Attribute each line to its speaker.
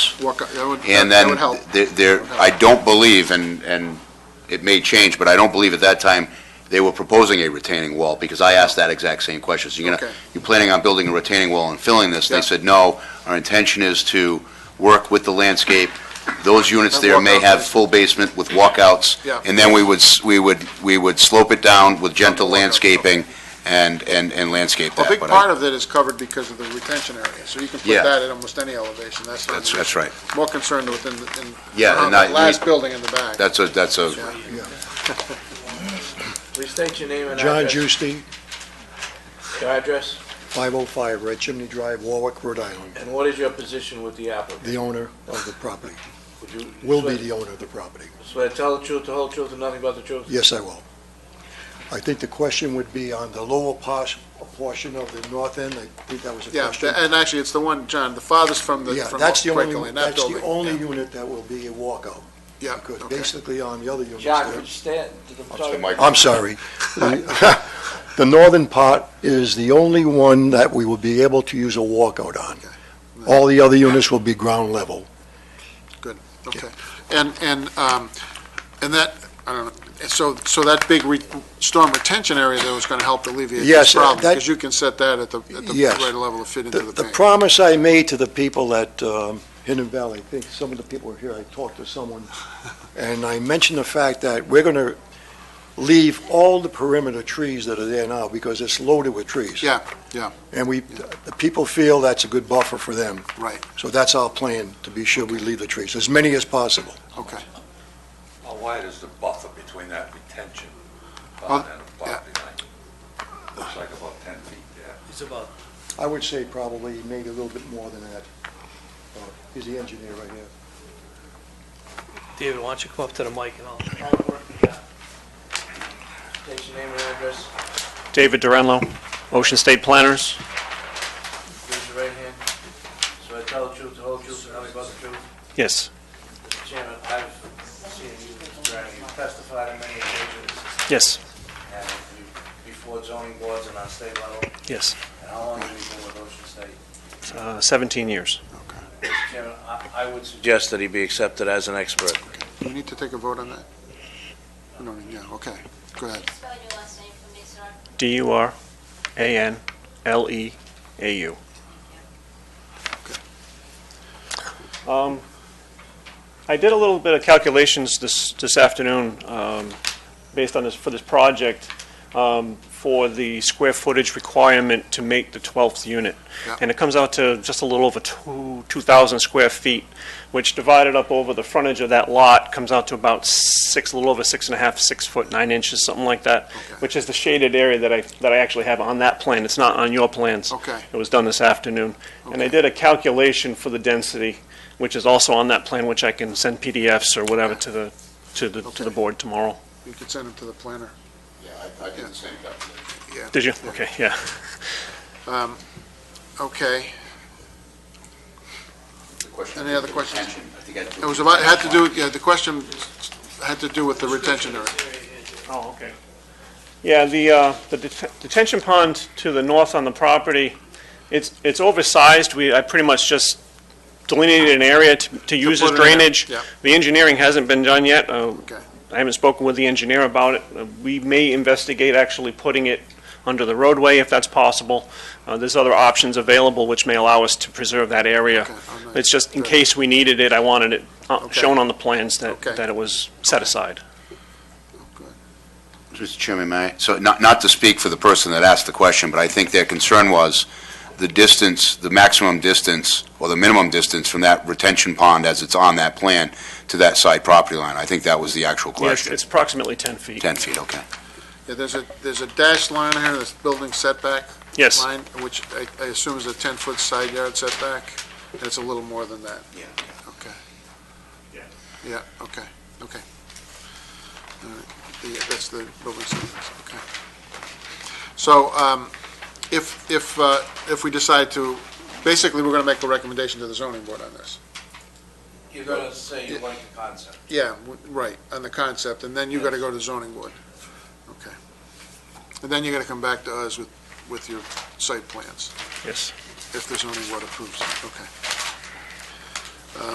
Speaker 1: walk, that would,
Speaker 2: And
Speaker 1: that
Speaker 2: then
Speaker 1: would help.
Speaker 2: there- there, I don't believe, and, and it may change, but I don't believe at that time they were proposing a retaining wall, because I asked that exact same question. So you're gonna,
Speaker 1: Okay.
Speaker 2: you're planning on building a retaining wall and filling this?
Speaker 1: Yeah.
Speaker 2: They said, no, our intention is to work with the landscape. Those units
Speaker 1: Have
Speaker 2: there may
Speaker 1: walkouts.
Speaker 2: have full basement with walkouts.
Speaker 1: Yeah.
Speaker 2: And then we would, s- we would, we would slope it down with
Speaker 1: Walkouts,
Speaker 2: gentle
Speaker 1: okay.
Speaker 2: landscaping and, and, and landscape
Speaker 1: A
Speaker 2: that.
Speaker 1: big
Speaker 2: But I-
Speaker 1: part of it is covered because of the retention area, so you can put
Speaker 2: Yeah.
Speaker 1: that at almost any elevation, that's not. an
Speaker 2: That's,
Speaker 1: issue.
Speaker 2: that's right.
Speaker 1: More concerned within, Uh, the- in,
Speaker 2: Yeah,
Speaker 1: around
Speaker 2: and
Speaker 1: that
Speaker 2: I-
Speaker 1: last building in the back.
Speaker 2: That's a, that's a,
Speaker 1: Yeah.
Speaker 3: Please state your name and
Speaker 4: John
Speaker 3: address.
Speaker 4: Juicy,
Speaker 3: Your address,
Speaker 4: 505 Red Chimney Drive, Warwick, Rhode Island,
Speaker 3: and what is your position with the applicant?
Speaker 4: the owner of the property,
Speaker 3: Would you
Speaker 4: will be
Speaker 3: swear-
Speaker 4: the owner of the property.
Speaker 3: Swear to tell the truth, the whole truth, and nothing but the truth?
Speaker 4: Yes, I will. I think the question would be on the lower pos- portion of the north end, I think that was a
Speaker 1: Yeah,
Speaker 4: question.
Speaker 1: tha- and actually, it's the one, John, the farthest from the,
Speaker 4: Yeah,
Speaker 1: from
Speaker 4: that's the
Speaker 1: Quaker
Speaker 4: only,
Speaker 1: Lane, that
Speaker 4: that's
Speaker 1: building.
Speaker 4: the only unit that will be a walkout,
Speaker 1: Yeah,
Speaker 4: because
Speaker 1: okay.
Speaker 4: basically on the other units
Speaker 3: John, could
Speaker 4: there.
Speaker 3: you stand? I'm
Speaker 2: sorry,
Speaker 3: sorry.
Speaker 2: Mike.
Speaker 4: I'm sorry. The the northern part is the only one that we will be able to use a walkout on. All the other units will be ground level.
Speaker 1: Okay, and, and, um, and that, I don't know, so, so that big re- storm retention area there was gonna help alleviate this
Speaker 4: Yes,
Speaker 1: problem,
Speaker 4: that-
Speaker 1: because you can set that at the, at the
Speaker 4: Yes.
Speaker 1: right level to fit into
Speaker 4: The
Speaker 1: the
Speaker 4: the
Speaker 1: bank.
Speaker 4: promise I made to the people at um, Hidden Valley, I think some of the people were here, I talked to someone, and I mentioned the fact that we're going to leave all the perimeter trees that are there now because it's loaded with trees.
Speaker 1: Yeah, yeah.
Speaker 4: And we, the people feel that's a good buffer for them.
Speaker 1: Right.
Speaker 4: So that's our plan, to be sure we leave the trees, as many as possible.
Speaker 1: Okay,
Speaker 5: How wide is the buffer between that retention
Speaker 1: Well,
Speaker 5: pond and the property line? Looks like about 10 feet there.
Speaker 6: It's about,
Speaker 4: I would say probably maybe a little bit more than that. Uh, He's the engineer right here.
Speaker 6: David, why don't you come up to the mic and I'll
Speaker 3: State your name and address,
Speaker 7: David Durenlo, Ocean State Planners.
Speaker 3: raise your right hand. Swear to tell the truth, the whole truth, and nothing but the truth.
Speaker 7: Yes.
Speaker 3: Mr. Chairman, I've seen you, Mr. Brown, you've testified on many occasions,
Speaker 7: Yes.
Speaker 3: and you- before zoning boards and on state level,
Speaker 7: Yes.
Speaker 3: and how long have you been with Ocean State?
Speaker 7: Uh, 17 years.
Speaker 3: Mr. Chairman, I- I would suggest that he be accepted as an expert.
Speaker 1: do we need to take a vote on that? We don't need- Yeah, okay, go ahead.
Speaker 8: Spell your last name for me, sir.
Speaker 7: D U R A N L E A U. Um, I did a little bit of calculations this, this afternoon, um, based on this, for this project, um, for the square footage requirement to make the 12th unit.
Speaker 1: Yeah.
Speaker 7: And it comes out to just a little over two, 2,000 square feet, which divided up over the frontage of that lot comes out to about six, a little over six and a half, six foot, nine inches, something like that, which is the shaded area that I, that I actually have on that plan. It's not on your plans.
Speaker 1: Okay.
Speaker 7: It was done this afternoon. And I did a calculation for the density, which is also on that plan, which I can send PDFs or whatever to the, to the, to the
Speaker 1: Okay.
Speaker 7: board tomorrow.
Speaker 1: You could send them to the planner.
Speaker 2: Yeah, I did the same calculation.
Speaker 1: Yeah.
Speaker 7: Did you? Okay, yeah.
Speaker 1: Um, Okay, Any other questions? it was about, had to do, yeah, the question had to do with the retention area.
Speaker 7: Oh, okay. Yeah, the, uh, the det- detention pond to the north on the property, it's, it's oversized. We, I pretty much just delineated an area to, to use as
Speaker 1: put it in there,
Speaker 7: drainage.
Speaker 1: yeah.
Speaker 7: The engineering hasn't been done yet. Uh,
Speaker 1: Okay.
Speaker 7: I haven't spoken with the engineer about it. Uh, We may investigate actually putting it under the roadway if that's possible. Uh, there's other options available which may allow us to preserve that area.
Speaker 1: Okay, all right.
Speaker 7: It's just in
Speaker 1: Good.
Speaker 7: case we needed it, I wanted it uh,
Speaker 1: Okay.
Speaker 7: shown on the plans that,
Speaker 1: Okay.
Speaker 7: that it was set aside.
Speaker 2: Mr. Chairman, may I? So not, not to speak for the person that asked the question, but I think their concern was the distance, the maximum distance, or the minimum distance from that retention pond as it's on that plan to that side property line. I think that was the actual
Speaker 7: Yes,
Speaker 2: question.
Speaker 7: it's approximately 10 feet.
Speaker 2: 10 feet, okay.
Speaker 1: Yeah, there's a, there's a dashed line here, this building setback
Speaker 7: Yes.
Speaker 1: line, which I- I assume is a 10-foot side yard setback, and it's a little more than that.
Speaker 2: Yeah.
Speaker 1: Okay.
Speaker 7: Yeah.
Speaker 1: Yeah, okay, okay. All right, the- That's the building setbacks, okay. So um, if, if, uh, if we decide to, basically, we're going to make a recommendation to the zoning board on this.
Speaker 3: You're going to say you like the concept.
Speaker 1: Yeah, w- right, on the concept, and then you gotta go to zoning board. Okay. And then you gotta come back to us with, with your site plans,
Speaker 7: Yes.
Speaker 1: if the zoning board approves, it. okay.